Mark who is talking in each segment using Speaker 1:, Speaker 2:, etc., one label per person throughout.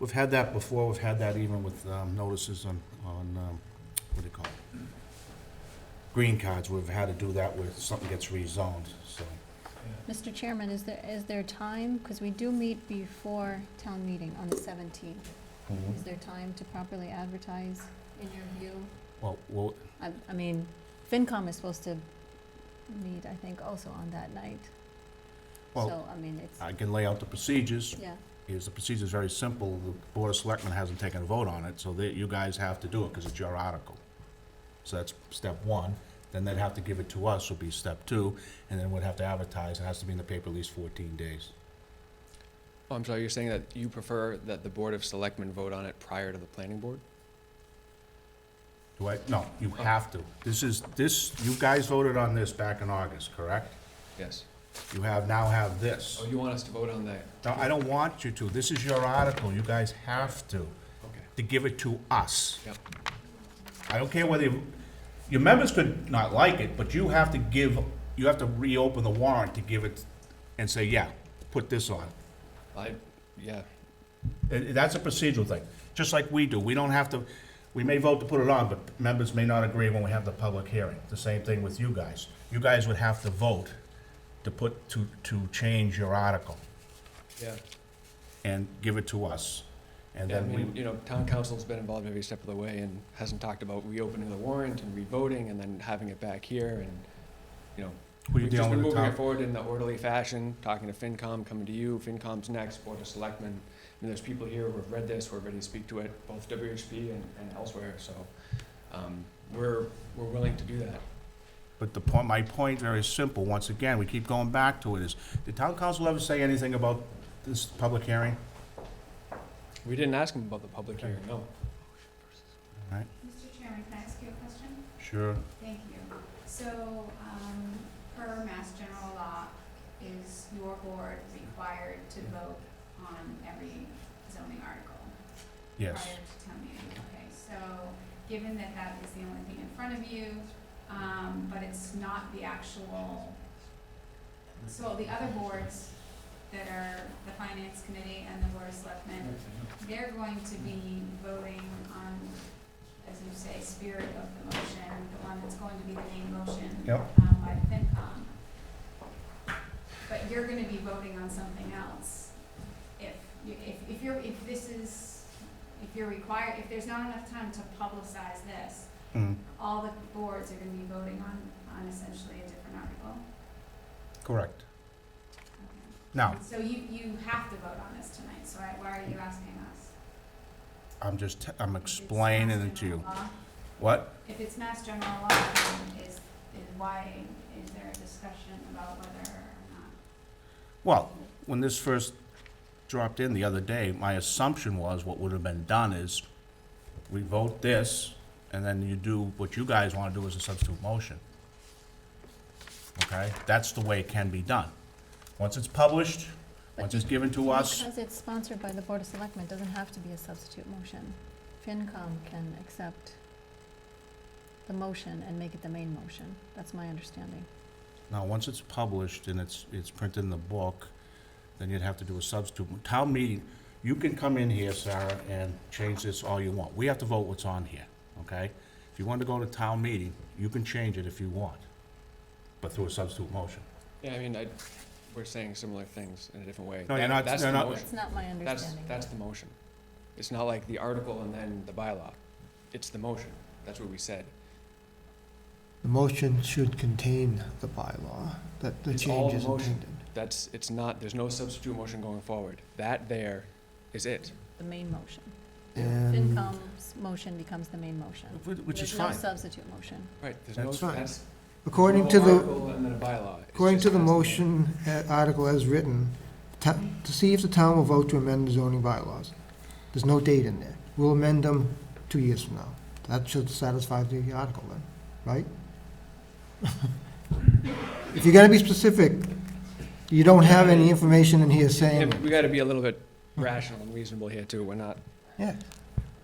Speaker 1: We've had that before, we've had that even with um, notices on, on, um, what do you call it? Green cards, we've had to do that where something gets rezoned, so.
Speaker 2: Mr. Chairman, is there, is there time, because we do meet before town meeting on the 17th, is there time to properly advertise, in your view?
Speaker 1: Well, well,
Speaker 2: I, I mean, FinCom is supposed to meet, I think, also on that night.
Speaker 1: Well,
Speaker 2: So, I mean, it's,
Speaker 1: I can lay out the procedures,
Speaker 2: yeah,
Speaker 1: is, the procedure's very simple, the Board of Selectmen hasn't taken a vote on it, so that, you guys have to do it, because it's your article. So that's step one, then they'd have to give it to us, would be step two, and then we'd have to advertise, it has to be in the paper at least fourteen days.
Speaker 3: Oh, I'm sorry, you're saying that you prefer that the Board of Selectmen vote on it prior to the planning board?
Speaker 1: Do I, no, you have to. This is, this, you guys voted on this back in August, correct?
Speaker 3: Yes.
Speaker 1: You have, now have this.
Speaker 3: Oh, you want us to vote on that?
Speaker 1: No, I don't want you to. This is your article. You guys have to,
Speaker 3: Okay.
Speaker 1: to give it to us.
Speaker 3: Yep.
Speaker 1: I don't care whether, you- your members could not like it, but you have to give, you have to reopen the warrant to give it and say, yeah, put this on.
Speaker 3: I, yeah,
Speaker 1: Uh, That's a procedural thing, just like we do. We don't have to, we may vote to put it on, but members may not agree when we have the public hearing. The same thing with you guys. You guys would have to vote to put, to, to change your article
Speaker 3: yeah.
Speaker 1: and give it to us. And
Speaker 3: Yeah, I
Speaker 1: then we,
Speaker 3: mean, you know, town council's been involved every step of the way and hasn't talked about reopening the warrant and revoting and then having it back here and, you know,
Speaker 1: we're
Speaker 3: we've just been
Speaker 1: dealing with the
Speaker 3: moving it
Speaker 1: town.
Speaker 3: forward in the orderly fashion, talking to FinCom, coming to you, FinCom's next, Board of Selectmen. And there's people here who have read this, who are ready to speak to it, both WHP and, and elsewhere, so, um, we're, we're willing to do that.
Speaker 1: But the point, my point, very simple, once again, we keep going back to it, is did town council ever say anything about this public hearing?
Speaker 3: We didn't ask him about the public hearing, no.
Speaker 4: Mr. Chairman, can I ask you a question?
Speaker 1: Sure.
Speaker 4: Thank you. So, um, per Mass General Law, is your board required to vote on every zoning article?
Speaker 1: Yes.
Speaker 4: Prior to town meeting, okay, so, given that that is the only thing in front of you, um, but it's not the actual, so the other boards that are the Finance Committee and the Board of Selectmen, they're going to be voting on, as you say, spirit of the motion, the one that's going to be the main motion.
Speaker 1: Yep.
Speaker 4: um, by the FinCom. But you're gonna be voting on something else. If, you- if, if you're, if this is, if you're required, if there's not enough time to publicize this,
Speaker 1: Mm,
Speaker 4: all the boards are gonna be voting on, on essentially a different article.
Speaker 1: correct.
Speaker 4: Okay.
Speaker 1: Now,
Speaker 4: So you, you have to vote on this tonight, so I- why are you asking us?
Speaker 1: I'm just, I'm
Speaker 4: It's
Speaker 1: explaining
Speaker 4: Mass
Speaker 1: it to you.
Speaker 4: General Law.
Speaker 1: What?
Speaker 4: If it's mass general law, then is, is why, is there a discussion about whether or
Speaker 1: Well, when this first dropped in the other day, my assumption was what would have been done is we vote this, and then you do what you guys want to do as a substitute motion. Okay? That's the way it can be done. Once it's published, once it's given to us,
Speaker 2: because it's sponsored by the Board of Selectmen, it doesn't have to be a substitute motion. FinCom can accept the motion and make it the main motion, that's my understanding.
Speaker 1: now, once it's published and it's, it's printed in the book, then you'd have to do a substitute. Town meeting, you can come in here, Sarah, and change this all you want. We have to vote what's on here, okay? If you want to go to town meeting, you can change it if you want, but through a substitute motion.
Speaker 3: Yeah, I mean, I, we're saying similar things in a different way.
Speaker 1: No, you're
Speaker 3: That-
Speaker 1: not-
Speaker 3: That's
Speaker 1: you're
Speaker 3: the
Speaker 1: not-
Speaker 3: motion.
Speaker 2: That's not my
Speaker 3: That's,
Speaker 2: understanding.
Speaker 3: that's the motion. It's not like the article and then the bylaw. It's the motion. That's what we said.
Speaker 5: The motion should contain the bylaw, that the
Speaker 3: It's all
Speaker 5: change is
Speaker 3: the motion.
Speaker 5: intended.
Speaker 3: That's, it's not, there's no substitute motion going forward. That there is it.
Speaker 2: The main motion.
Speaker 5: And
Speaker 2: FinCom's motion becomes the main motion.
Speaker 1: Wh- Which is
Speaker 2: There's
Speaker 1: fine.
Speaker 2: no substitute motion.
Speaker 3: Right, there's no,
Speaker 5: That's fine.
Speaker 3: that's.
Speaker 5: according
Speaker 3: no
Speaker 5: to the,
Speaker 3: article and then a bylaw. It's
Speaker 5: according
Speaker 3: just
Speaker 5: to the
Speaker 3: has be-
Speaker 5: motion, uh, article as written, ta- to see if the town will vote to amend the zoning bylaws. There's no date in there. We'll amend them two years from now. That should satisfy the article then, right? If you're gonna be specific, you don't have any information in here
Speaker 3: Yeah,
Speaker 5: saying,
Speaker 3: but We gotta be a little bit rational and reasonable here too. We're not,
Speaker 5: yeah,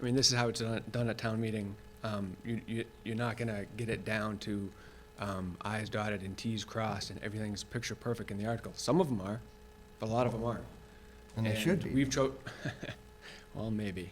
Speaker 3: I mean, this is how it's done, done at town meeting. Um, you, you, you're not gonna get it down to, um, i's dotted and t's crossed and everything's picture perfect in the article. Some of them are, but a lot of them aren't.
Speaker 5: and they should be.
Speaker 3: We've cho, Well, maybe.